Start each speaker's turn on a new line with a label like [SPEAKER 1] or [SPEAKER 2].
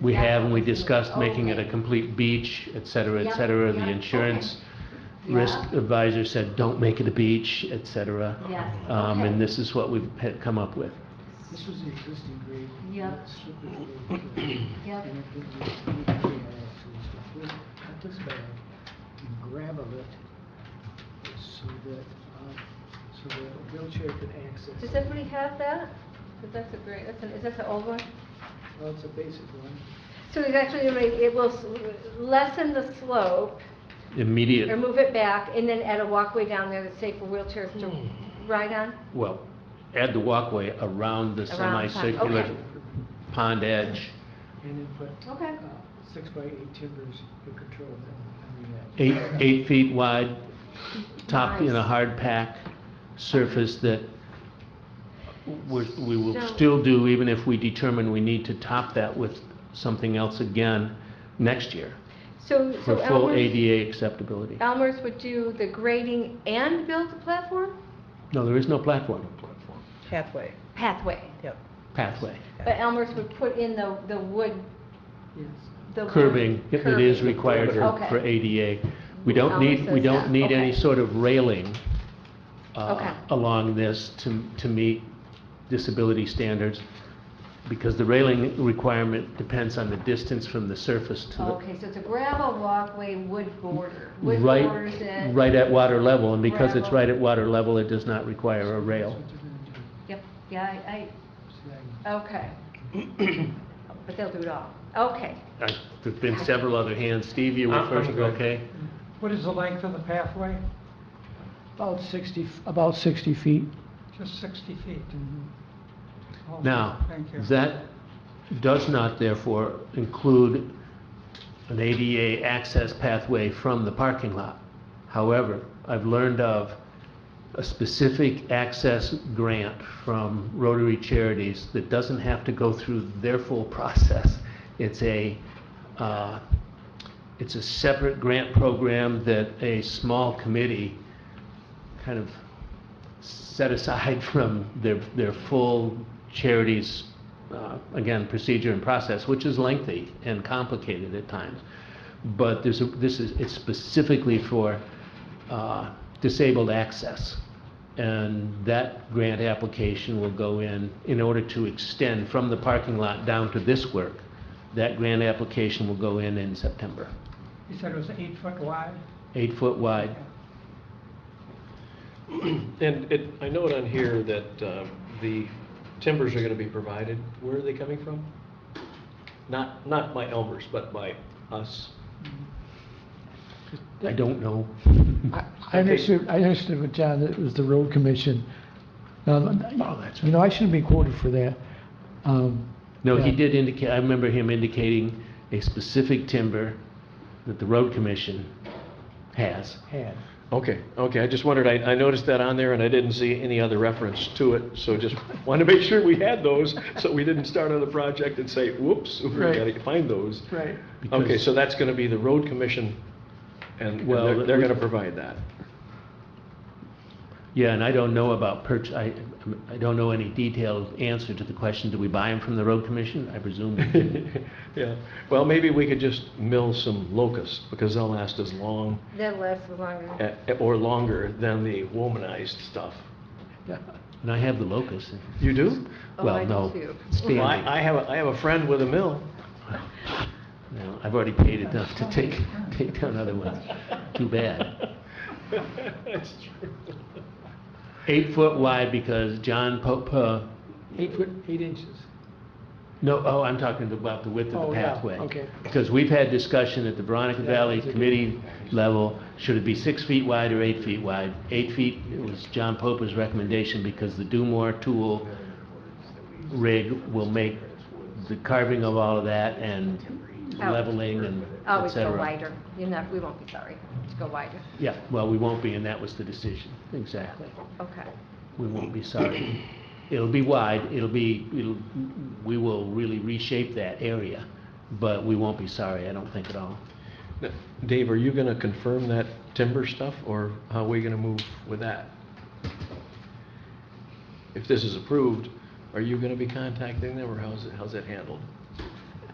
[SPEAKER 1] we have, and we discussed making it a complete beach, et cetera, et
[SPEAKER 2] Yep,
[SPEAKER 1] cetera.
[SPEAKER 2] yep,
[SPEAKER 1] The
[SPEAKER 2] okay.
[SPEAKER 1] insurance risk
[SPEAKER 2] Yeah.
[SPEAKER 1] advisor said, don't make it a beach, et cetera.
[SPEAKER 2] Yes,
[SPEAKER 1] Um,
[SPEAKER 2] okay.
[SPEAKER 1] and this is what we've had come up with.
[SPEAKER 3] This was the existing grade.
[SPEAKER 2] Yep.
[SPEAKER 3] That's strictly for the-
[SPEAKER 2] Yep.
[SPEAKER 3] And if it was really bad, it was to flip, cut this back and gravel it so that, uh, so that a wheelchair could access.
[SPEAKER 4] Does
[SPEAKER 3] it.
[SPEAKER 4] everybody have that? 'Cause that's a great, that's an, is that the old one?
[SPEAKER 3] Well, it's a basic one.
[SPEAKER 4] So it's actually, already- it will s- lessen the slope or
[SPEAKER 1] Immediate,
[SPEAKER 4] move it back and then add a walkway down there that's safe for wheelchairs to ride on?
[SPEAKER 1] well, add the walkway
[SPEAKER 4] Around
[SPEAKER 1] around the
[SPEAKER 4] the pond,
[SPEAKER 1] semicircular
[SPEAKER 4] okay.
[SPEAKER 1] pond edge.
[SPEAKER 3] And then put.
[SPEAKER 4] Okay.
[SPEAKER 3] uh, Six by eight timbers to control that.
[SPEAKER 1] Eight, eight feet wide, topped in a
[SPEAKER 4] Nice.
[SPEAKER 1] hard pack surface that we're, we will
[SPEAKER 4] So-
[SPEAKER 1] still do even if we determine we need to top that with something else again next year
[SPEAKER 4] So, so
[SPEAKER 1] for full
[SPEAKER 4] Elmer's,
[SPEAKER 1] ADA acceptability.
[SPEAKER 4] Elmer's would do the grading and build the platform?
[SPEAKER 1] No, there is no platform,
[SPEAKER 5] pathway,
[SPEAKER 4] Pathway.
[SPEAKER 5] yep.
[SPEAKER 1] pathway.
[SPEAKER 4] But Elmer's would put in the, the wood,
[SPEAKER 3] Yes.
[SPEAKER 4] the. wood
[SPEAKER 1] Curbing, if it is
[SPEAKER 4] curbing.
[SPEAKER 1] required for-
[SPEAKER 4] Okay.
[SPEAKER 1] for ADA. We don't
[SPEAKER 4] Elmer
[SPEAKER 1] need, we
[SPEAKER 4] says that,
[SPEAKER 1] don't need any
[SPEAKER 4] okay.
[SPEAKER 1] sort of railing uh,
[SPEAKER 4] Okay.
[SPEAKER 1] along this to, to meet disability standards, because the railing requirement depends on the distance from the surface to the,
[SPEAKER 4] Okay, so it's a gravel walkway, wood border. Wood borders
[SPEAKER 1] right,
[SPEAKER 4] it.
[SPEAKER 1] right at water level, and because it's
[SPEAKER 4] Gravel.
[SPEAKER 1] right at water level, it does not require a
[SPEAKER 3] That's
[SPEAKER 1] rail.
[SPEAKER 3] what you're gonna do.
[SPEAKER 4] Yep, yeah, I,
[SPEAKER 3] Slag.
[SPEAKER 4] I, okay. But they'll do it all. Okay.
[SPEAKER 1] I- There've been several other hands, Steve, you were
[SPEAKER 6] I'm- I'm
[SPEAKER 1] first,
[SPEAKER 6] good.
[SPEAKER 1] okay?
[SPEAKER 6] What is the length of the pathway?
[SPEAKER 3] About 60, about 60 feet.
[SPEAKER 6] Just 60 feet?
[SPEAKER 7] Mm-hmm.
[SPEAKER 6] Oh,
[SPEAKER 1] Now,
[SPEAKER 6] Thank you.
[SPEAKER 1] that does not therefore include an ADA access pathway from the parking lot. However, I've learned of a specific access grant from Rotary Charities that doesn't have to go through their full process. It's a, uh, it's a separate grant program that a small committee kind of set aside from their, their full charities, uh, again, procedure and process, which is lengthy and complicated at times. But there's, a- this is, it's specifically for uh, disabled access. And that grant application will go in, in order to extend from the parking lot down to this work. That grant application will go in in September,
[SPEAKER 6] You said it was eight foot wide?
[SPEAKER 1] eight foot wide.
[SPEAKER 8] And it, I note on here that uh, the timbers are gonna be provided, where are they coming from? Not, not by Elmer's, but by us.
[SPEAKER 1] I don't know.
[SPEAKER 7] I I understood, I understood with John that it was the road commission. Um,
[SPEAKER 1] Oh, that's
[SPEAKER 7] You know, I shouldn't be quoted for that. Um,
[SPEAKER 1] No, he
[SPEAKER 7] Yeah.
[SPEAKER 1] did indicate, I remember him indicating a specific timber that the road commission has.
[SPEAKER 7] had.
[SPEAKER 8] Okay, okay, I just wondered, I, I noticed that on there and I didn't see any other reference to it, so just wanted to make sure we had those, so we didn't start on the project and say, whoops, we
[SPEAKER 3] Right.
[SPEAKER 8] gotta find those.
[SPEAKER 3] Right.
[SPEAKER 8] Okay,
[SPEAKER 1] because-
[SPEAKER 8] so that's gonna be the road commission, and and
[SPEAKER 1] Well,
[SPEAKER 8] they're, they're
[SPEAKER 1] we-
[SPEAKER 8] gonna provide that.
[SPEAKER 1] Yeah, and I don't know about purch, I, I don't know any detailed answer to the question, do we buy them from the road commission? I presume we didn't.
[SPEAKER 8] Yeah, well, maybe we could just mill some locusts, because they'll last as long,
[SPEAKER 4] That lasts longer.
[SPEAKER 8] eh, or longer than the womanized stuff.
[SPEAKER 1] And I have the locust.
[SPEAKER 8] You do?
[SPEAKER 4] Oh, I
[SPEAKER 1] Well,
[SPEAKER 4] do
[SPEAKER 1] no,
[SPEAKER 4] too.
[SPEAKER 8] Well, I,
[SPEAKER 1] standing.
[SPEAKER 8] I have, a I have a friend with a mill.
[SPEAKER 1] No, I've already paid enough to take, take down other ones. Too bad.
[SPEAKER 8] That's true.
[SPEAKER 1] Eight foot wide because John Pope, uh,
[SPEAKER 3] Eight foot, eight inches.
[SPEAKER 1] No, oh, I'm talking about the width of
[SPEAKER 3] Oh,
[SPEAKER 1] the
[SPEAKER 3] yeah,
[SPEAKER 1] pathway.
[SPEAKER 3] okay.
[SPEAKER 1] Because we've had discussion at the Veronica
[SPEAKER 3] Yeah,
[SPEAKER 1] Valley
[SPEAKER 3] it's a good-
[SPEAKER 1] Committee level, should it be six feet wide or eight feet wide? Eight feet was John Pope's recommendation because the Dumore tool rig will make the carving of all of that and
[SPEAKER 4] Out.
[SPEAKER 1] leveling and et
[SPEAKER 4] Always Oh, go
[SPEAKER 1] cetera.
[SPEAKER 4] wider. You're not, we won't be sorry. Just go wider.
[SPEAKER 1] Yeah, well, we won't be, and that was the decision, exactly.
[SPEAKER 4] Okay.
[SPEAKER 1] We won't be sorry. It'll be wide, it'll be, it'll, we will really reshape that area, but we won't be sorry, I don't think at all.
[SPEAKER 8] Now, Dave, are you gonna confirm that timber stuff, or how are we gonna move with that? If this is approved, are you gonna be contacting them, or how's, it- how's that handled?